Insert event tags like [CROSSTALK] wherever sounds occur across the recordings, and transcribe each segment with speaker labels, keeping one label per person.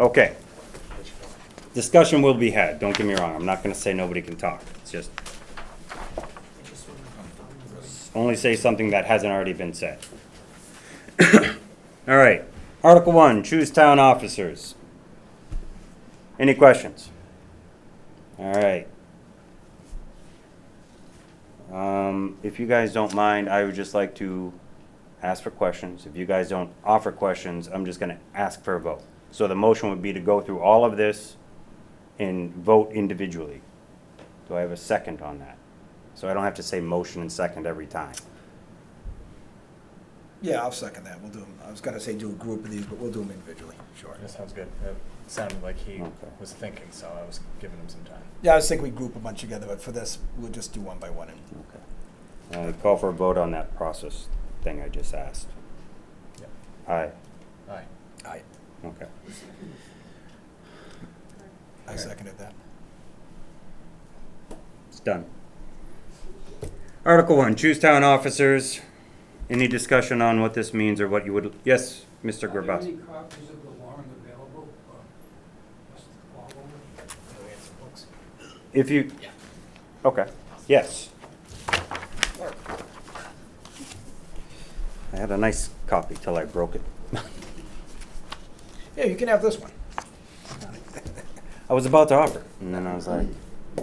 Speaker 1: Okay. Discussion will be had, don't get me wrong, I'm not gonna say nobody can talk, it's just. Only say something that hasn't already been said. [COUGHS] All right, Article one, choose town officers. Any questions? All right. Um, if you guys don't mind, I would just like to ask for questions. If you guys don't offer questions, I'm just gonna ask for a vote. So the motion would be to go through all of this and vote individually. Do I have a second on that? So I don't have to say motion and second every time.
Speaker 2: Yeah, I'll second that. We'll do them, I was gonna say do a group of these, but we'll do them individually, sure.
Speaker 3: That sounds good. It sounded like he
Speaker 1: Okay.
Speaker 3: was thinking, so I was giving him some time.
Speaker 2: Yeah, I was thinking we group a bunch together, but for this, we'll just do one by one. and-
Speaker 1: Okay. Uh, call for a vote on that process thing I just asked.
Speaker 3: Yep.
Speaker 1: Aye,
Speaker 3: Aye.
Speaker 2: I,
Speaker 1: okay.
Speaker 2: I seconded that.
Speaker 1: It's done. Article one, choose town officers. Any discussion on what this means or what you would, yes, Mr.
Speaker 4: Are there
Speaker 1: Grabowski?
Speaker 4: any copies of the warrant available for us to follow?
Speaker 1: If you, okay, yes. I had a nice copy till I broke it. [LAUGHS]
Speaker 2: Yeah, you can have this one.
Speaker 1: I was about to offer, and then I was like,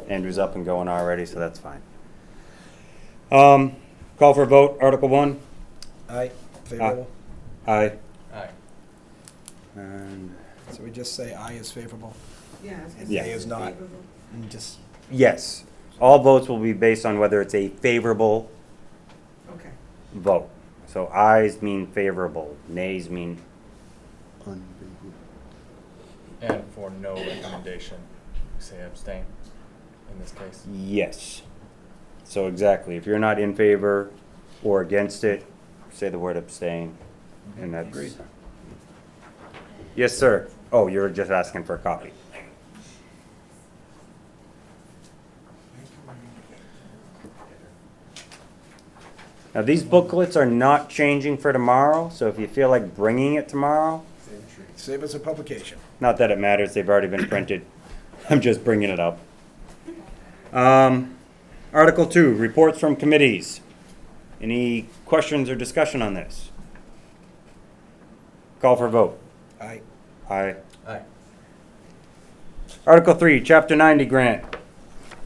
Speaker 1: Andrew's up and going already, so that's fine. Um, call for a vote, Article one?
Speaker 2: Aye, favorable.
Speaker 1: Aye.
Speaker 3: Aye.
Speaker 1: And
Speaker 2: So we just say aye is favorable
Speaker 5: Yeah. I was gonna
Speaker 2: and
Speaker 5: say
Speaker 1: Yeah.
Speaker 2: nay is not,
Speaker 5: favorable.
Speaker 2: and just,
Speaker 1: yes, all votes will be based on whether it's a favorable
Speaker 5: Okay.
Speaker 1: vote. So ayes mean favorable, nays mean.
Speaker 3: And for no recommendation, say abstain in this case.
Speaker 1: Yes. So exactly, if you're not in favor or against it, say the word abstain, and that's. Yes, sir. Oh, you're just asking for a copy. Now, these booklets are not changing for tomorrow, so if you feel like bringing it tomorrow,
Speaker 2: save us a publication.
Speaker 1: not that it matters, they've already been printed. [COUGHS] I'm just bringing it up. Um, Article two, reports from committees. Any questions or discussion on this? Call for vote.
Speaker 2: Aye,
Speaker 1: Aye.
Speaker 3: Aye.
Speaker 1: Article three, chapter ninety grant.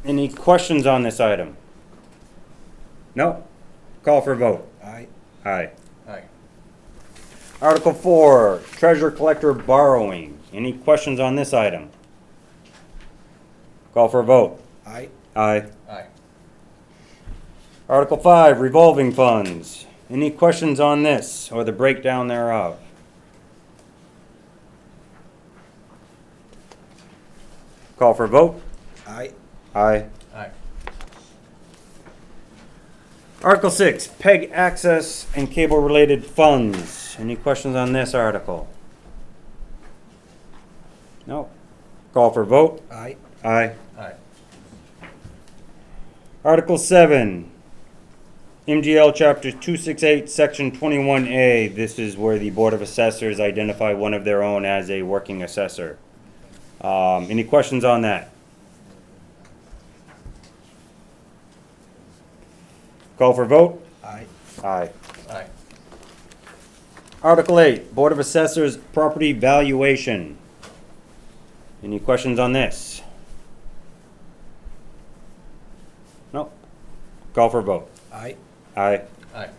Speaker 1: Any questions on this item? No? Call for vote.
Speaker 2: aye,
Speaker 1: Aye.
Speaker 3: Aye.
Speaker 1: Article four, treasure collector borrowing. Any questions on this item? Call for vote.
Speaker 2: aye,
Speaker 1: Aye.
Speaker 3: Aye.
Speaker 1: Article five, revolving funds. Any questions on this or the breakdown thereof? Call for vote.
Speaker 2: aye,
Speaker 1: Aye.
Speaker 3: Aye.
Speaker 1: Article six, PEG access and cable-related funds. Any questions on this article? No. Call for vote.
Speaker 2: aye,
Speaker 1: Aye.
Speaker 3: Aye.
Speaker 1: Article seven, MGL Chapter two six eight, Section twenty-one A. This is where the Board of Assessors identify one of their own as a working assessor. Um, any questions on that? Call for vote?
Speaker 2: aye,
Speaker 1: Aye.
Speaker 3: Aye.
Speaker 1: Article eight, Board of Assessors Property Valuation. Any questions on this? No. Call for vote?
Speaker 2: aye,
Speaker 1: Aye.
Speaker 3: Aye.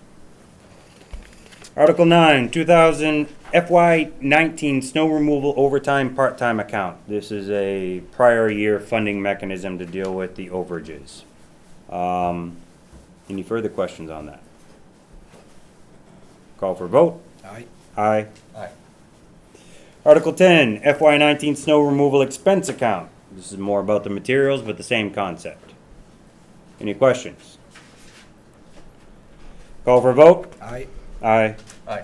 Speaker 1: Article nine, two thousand FY nineteen snow removal overtime part-time account. This is a prior year funding mechanism to deal with the overages. Um, any further questions on that? Call for vote?
Speaker 2: aye,
Speaker 1: Aye.
Speaker 3: Aye.
Speaker 1: Article ten, FY nineteen snow removal expense account. This is more about the materials, but the same concept. Any questions? Call for vote?
Speaker 2: aye,
Speaker 1: Aye.
Speaker 3: Aye.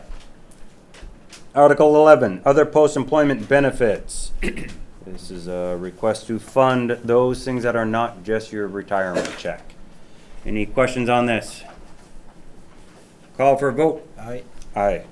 Speaker 1: Article 11, other post-employment benefits. This is a request to fund those things that are not just your retirement check. Any questions on this? Call for vote.
Speaker 2: aye,
Speaker 1: Aye.